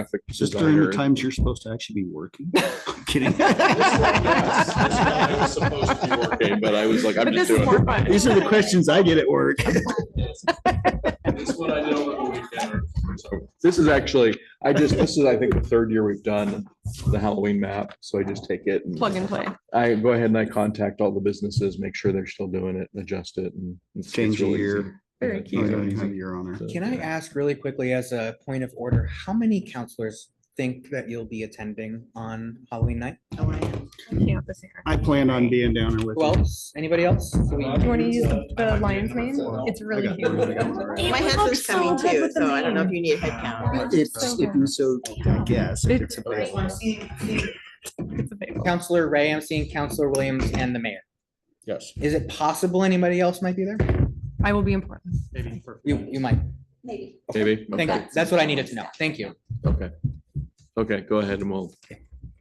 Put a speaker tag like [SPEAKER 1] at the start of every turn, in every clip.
[SPEAKER 1] graphic
[SPEAKER 2] Just during the
[SPEAKER 1] designer.
[SPEAKER 2] times you're supposed to actually be working. I'm Kidding.
[SPEAKER 1] I was supposed to be working, But I was like, I'm
[SPEAKER 3] But
[SPEAKER 1] just
[SPEAKER 3] this is
[SPEAKER 1] doing
[SPEAKER 3] more
[SPEAKER 1] it.
[SPEAKER 3] fun.
[SPEAKER 2] These are the questions I get at work. Oh,
[SPEAKER 1] It's what I did over the weekend. So This is actually, I just, this is, I think, the third year we've done the Halloween map, so I just take it and.
[SPEAKER 3] Plug and play.
[SPEAKER 1] I go ahead and I contact all the businesses, make sure they're still doing it, adjust it and. it's- it's
[SPEAKER 2] Change the
[SPEAKER 1] really
[SPEAKER 2] year.
[SPEAKER 1] easy.
[SPEAKER 3] Very
[SPEAKER 1] Yeah, it's
[SPEAKER 2] Oh,
[SPEAKER 1] easy,
[SPEAKER 2] yeah,
[SPEAKER 3] cute.
[SPEAKER 2] you have
[SPEAKER 1] easy.
[SPEAKER 2] your honor.
[SPEAKER 1] So,
[SPEAKER 4] Can I
[SPEAKER 1] yeah.
[SPEAKER 4] ask really quickly as a point of order, how many counselors think that you'll be attending on Halloween night?
[SPEAKER 3] Can't this year.
[SPEAKER 2] I plan on being down there with.
[SPEAKER 4] Who
[SPEAKER 2] you.
[SPEAKER 4] else? Anybody else? So we-
[SPEAKER 3] Do you want to use the lion's mane? It's
[SPEAKER 2] I
[SPEAKER 3] really
[SPEAKER 2] got one, I
[SPEAKER 3] cute.
[SPEAKER 2] got one, all right.
[SPEAKER 5] My husband's coming too, so I don't know if you need a head count.
[SPEAKER 2] It's, if you so, I guess, if it's available.
[SPEAKER 3] It's available.
[SPEAKER 4] Counselor Ray, I'm seeing Counselor Williams and the mayor.
[SPEAKER 2] Yes.
[SPEAKER 4] Is it possible anybody else might be there?
[SPEAKER 3] I will be in Portland.
[SPEAKER 4] You, you might.
[SPEAKER 1] Maybe.
[SPEAKER 4] Thank
[SPEAKER 1] Okay.
[SPEAKER 4] you. That's what I needed to know. Thank you.
[SPEAKER 1] Okay. Okay, go ahead and we'll,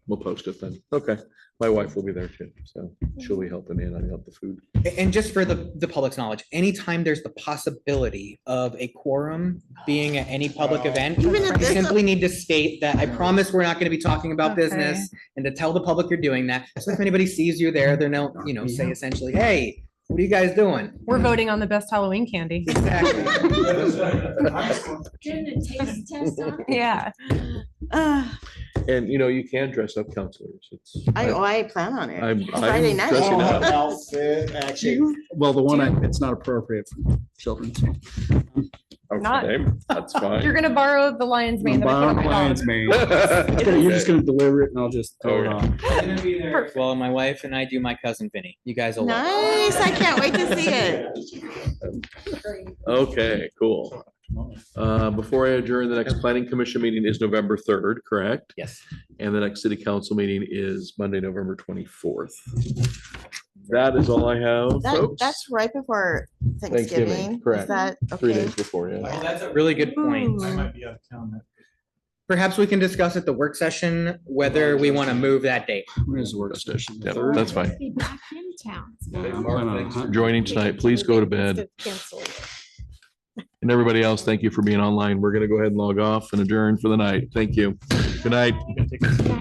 [SPEAKER 1] we'll post it then. Okay. My wife will be there too, so she'll be helping me and I'll help the food.
[SPEAKER 4] A- And just for the, the public's knowledge, anytime there's the possibility of a quorum being at any public event,
[SPEAKER 5] Even
[SPEAKER 4] you
[SPEAKER 5] at this,
[SPEAKER 4] simply need to state that I promise we're not gonna be talking about business and to tell the public you're doing that. So if anybody sees you there, they're no, you know, say essentially, hey, what are you guys doing?
[SPEAKER 3] We're voting on the best Halloween candy.
[SPEAKER 4] Exactly.
[SPEAKER 6] Doing a taste test on it?
[SPEAKER 3] Yeah.
[SPEAKER 1] And you know, you can dress up counselors. It's.
[SPEAKER 5] I, oh, I plan on it.
[SPEAKER 1] I'm- I'm
[SPEAKER 5] Friday
[SPEAKER 1] dressing up.
[SPEAKER 5] night.
[SPEAKER 2] Outfit, actually, well, the one, I- it's not appropriate for children. so.
[SPEAKER 3] Not-
[SPEAKER 1] Oh, Okay, that's fine.
[SPEAKER 3] You're gonna borrow the lion's mane that I put on
[SPEAKER 2] Bottom
[SPEAKER 3] my
[SPEAKER 2] line's
[SPEAKER 3] dog.
[SPEAKER 2] mane. It's gonna- You're just gonna deliver it and I'll just throw it
[SPEAKER 1] Okay.
[SPEAKER 2] on.
[SPEAKER 4] Well, my wife and I do my cousin Vinny. You guys will. love it.
[SPEAKER 5] Nice, I can't wait to see it.
[SPEAKER 1] Okay, cool. Uh, Before I adjourn, the next planning commission meeting is November third, correct?
[SPEAKER 4] Yes.
[SPEAKER 1] And the next city council meeting is Monday, November twenty-fourth. That is all I have,
[SPEAKER 5] That,
[SPEAKER 1] folks.
[SPEAKER 5] that's right before
[SPEAKER 1] Thanksgiving,
[SPEAKER 5] Thanksgiving.
[SPEAKER 1] correct.
[SPEAKER 5] Is that,
[SPEAKER 1] Three
[SPEAKER 5] okay?
[SPEAKER 1] days before, yeah.
[SPEAKER 4] Really good point.
[SPEAKER 3] Ooh.
[SPEAKER 4] Perhaps we can discuss at the work session whether we want to move that date.
[SPEAKER 2] When is the work session? The
[SPEAKER 1] Yep,
[SPEAKER 2] third?
[SPEAKER 1] That's fine.
[SPEAKER 6] Be back in town.
[SPEAKER 2] I'm going on a hunt.
[SPEAKER 1] Joining tonight, please go to bed. And everybody else, thank you for being online. We're gonna go ahead and log off and adjourn for the night. Thank you. Good night.